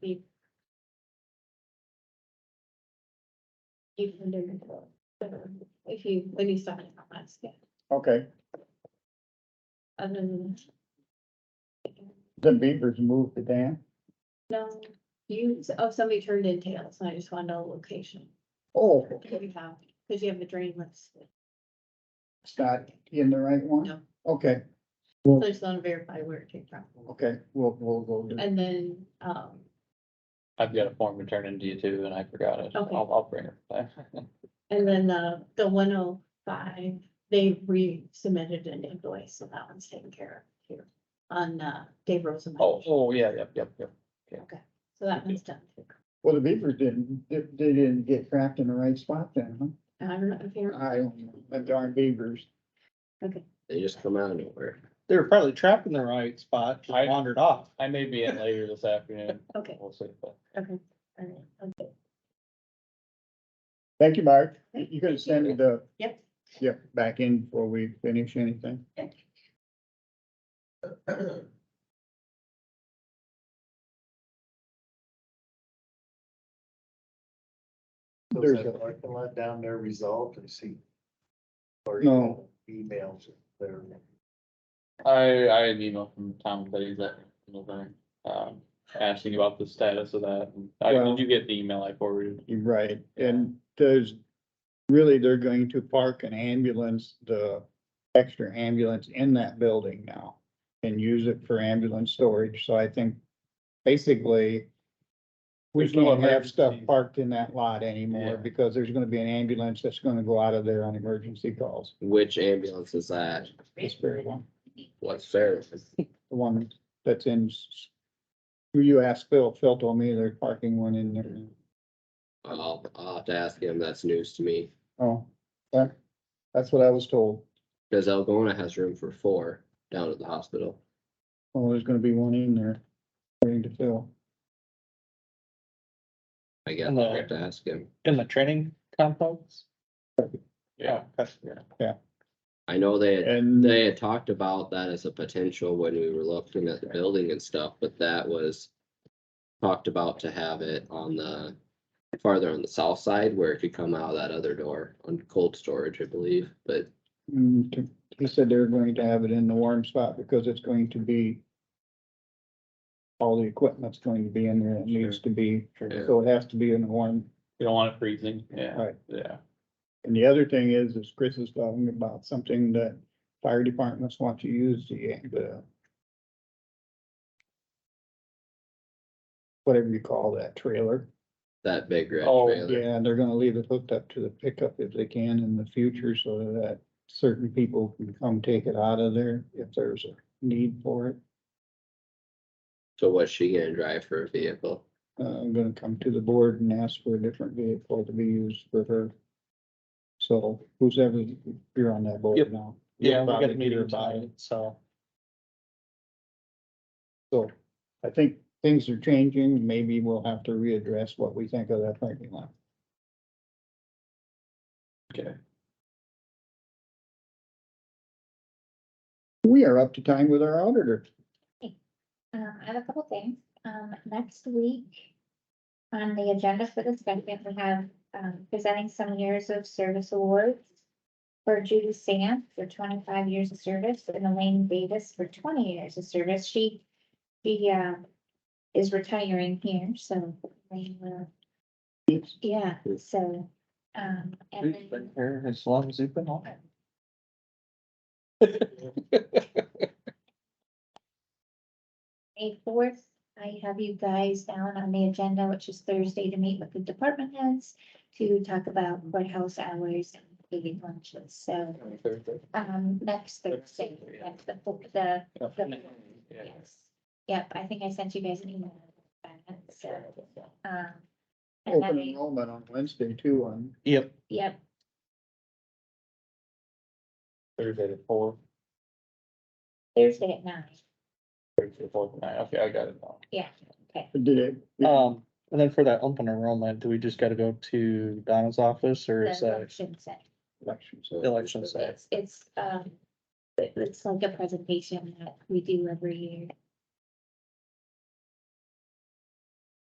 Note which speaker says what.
Speaker 1: be. You can do it. If you, when you stop in comments, yeah,
Speaker 2: Okay,
Speaker 1: other than.
Speaker 2: then Beavers moved to Dan.
Speaker 1: No, you, oh, somebody turned in tails, and I just want to know location.
Speaker 2: Oh,
Speaker 1: If you have, because you have a drain list, so
Speaker 2: it's not in the right one?
Speaker 1: No.
Speaker 2: Okay,
Speaker 1: I just want to verify where it came from.
Speaker 2: okay, we'll, we'll go. there.
Speaker 1: And then, um,
Speaker 3: I've got a form to turn into you too, and I forgot it.
Speaker 1: Okay.
Speaker 3: I'll, I'll bring it back.
Speaker 1: and then the, the one oh five, they resubmitted an invoice, so that one's taken care of here. On, uh, Dave
Speaker 3: Oh,
Speaker 1: Rosenbaum, so
Speaker 3: oh, yeah, yep, yep, yep.
Speaker 1: that one's done.
Speaker 2: Well, the Beavers didn't, they they didn't get trapped in the right spot then,
Speaker 1: I don't know if
Speaker 2: huh?
Speaker 1: you're,
Speaker 2: I don't know, the darn Beavers.
Speaker 4: They just come out of nowhere.
Speaker 5: They were probably trapped in the right spot,
Speaker 3: I-
Speaker 5: just wandered off.
Speaker 3: I may be in later this afternoon.
Speaker 1: okay,
Speaker 3: We'll see. but-
Speaker 1: okay, all right, okay,
Speaker 2: Thank you, Mark. You could send it the,
Speaker 1: yep.
Speaker 2: yeah, back in before we finish anything.
Speaker 6: There's
Speaker 2: There's
Speaker 6: a
Speaker 2: a-
Speaker 6: parking lot down there resolved and see. Or
Speaker 2: No.
Speaker 6: Emails there.
Speaker 3: I, I had an email from Tom Clay that, um, asking about the status of that. and I,
Speaker 2: Well-
Speaker 3: did you get the email I forwarded?
Speaker 2: You're right, and there's, really, they're going to park an ambulance, the extra ambulance in that building now. And use it for ambulance storage, so I think basically. We
Speaker 3: There's no
Speaker 2: can't have stuff
Speaker 3: emergency.
Speaker 2: parked in that lot anymore,
Speaker 3: Yeah.
Speaker 2: because there's gonna be an ambulance that's gonna go out of there on emergency calls.
Speaker 4: Which ambulance is that?
Speaker 2: This very one,
Speaker 4: What service?
Speaker 2: the one that's in. s- Who you asked Phil, Phil told me they're parking one in there,
Speaker 4: I'll, I'll have to ask him. That's news to me.
Speaker 2: oh, that, that's what I was told,
Speaker 4: Cause Algona has room for four down at the hospital.
Speaker 2: oh, there's gonna be one in there, according to Phil.
Speaker 4: I guess
Speaker 5: Hello.
Speaker 4: I have to ask him.
Speaker 5: In the training complex? Oh,
Speaker 3: Yeah,
Speaker 5: Okay.
Speaker 4: I know they, had-
Speaker 2: And
Speaker 4: they had talked about that as a potential when we were looking at the building and stuff, but that was talked about to have it on the, farther on the south side where it could come out of that other door on cold storage, I believe, but
Speaker 2: mm, to- he said they're going to have it in the warm spot because it's going to be all the equipment's going to be in there. It needs to be,
Speaker 4: Yeah.
Speaker 2: so it has to be in the warm.
Speaker 3: you don't want it freezing. Yeah,
Speaker 2: Right.
Speaker 3: yeah.
Speaker 2: And the other thing is, is Chris is talking about something that fire departments want to use the, the whatever you call that trailer.
Speaker 4: that big red
Speaker 3: Oh,
Speaker 4: trailer.
Speaker 2: Yeah, and they're gonna leave it hooked up to the pickup if they can in the future so that certain people can come take it out of there if there's a need for it.
Speaker 4: So what's she gonna drive for a vehicle?
Speaker 2: Uh, I'm gonna come to the board and ask for a different vehicle to be used for her. So who's ever, you're on that board
Speaker 5: Yep.
Speaker 2: now.
Speaker 5: Yeah, we
Speaker 2: You'll
Speaker 5: got
Speaker 2: probably
Speaker 5: a
Speaker 2: hear
Speaker 5: meeting
Speaker 2: about
Speaker 5: tonight, so.
Speaker 2: So I think things are changing. Maybe we'll have to readdress what we think of that parking lot.
Speaker 3: Okay.
Speaker 2: We are up to time with our auditor.
Speaker 7: Um, I have a couple things. Um, next week. On the agenda for this segment, we have, um, presenting some years of service awards. For Judy Sands for twenty-five years of service and Elaine Davis for twenty years of service. She, she, uh. Is retiring here, so. Elaine will- Yeah, so, um, and
Speaker 5: We've
Speaker 7: then,
Speaker 5: been here as long as you've been on it.
Speaker 7: May fourth, I have you guys down on the agenda, which is Thursday, to meet with the department heads to talk about courthouse hours and baby lunches, so, um, next Thursday, that's the, fo- the, the,
Speaker 3: Yeah.
Speaker 7: yes. Yep, I think I sent you guys an email, about that, so, um, and
Speaker 2: Open
Speaker 7: then,
Speaker 2: enrollment on Wednesday too on
Speaker 5: Yep,
Speaker 7: yep,
Speaker 3: Thursday to four,
Speaker 7: Thursday at nine,
Speaker 3: Thursday to four tonight. Okay, I got it now.
Speaker 7: yeah, okay.
Speaker 2: Did it?
Speaker 3: Oh.
Speaker 5: um, and then for that open enrollment, do we just gotta go to Donna's office or is
Speaker 7: The
Speaker 5: that
Speaker 7: election set.
Speaker 2: election, so.
Speaker 5: election site?
Speaker 7: It's, it's, um, it- it's like a presentation that we do every year.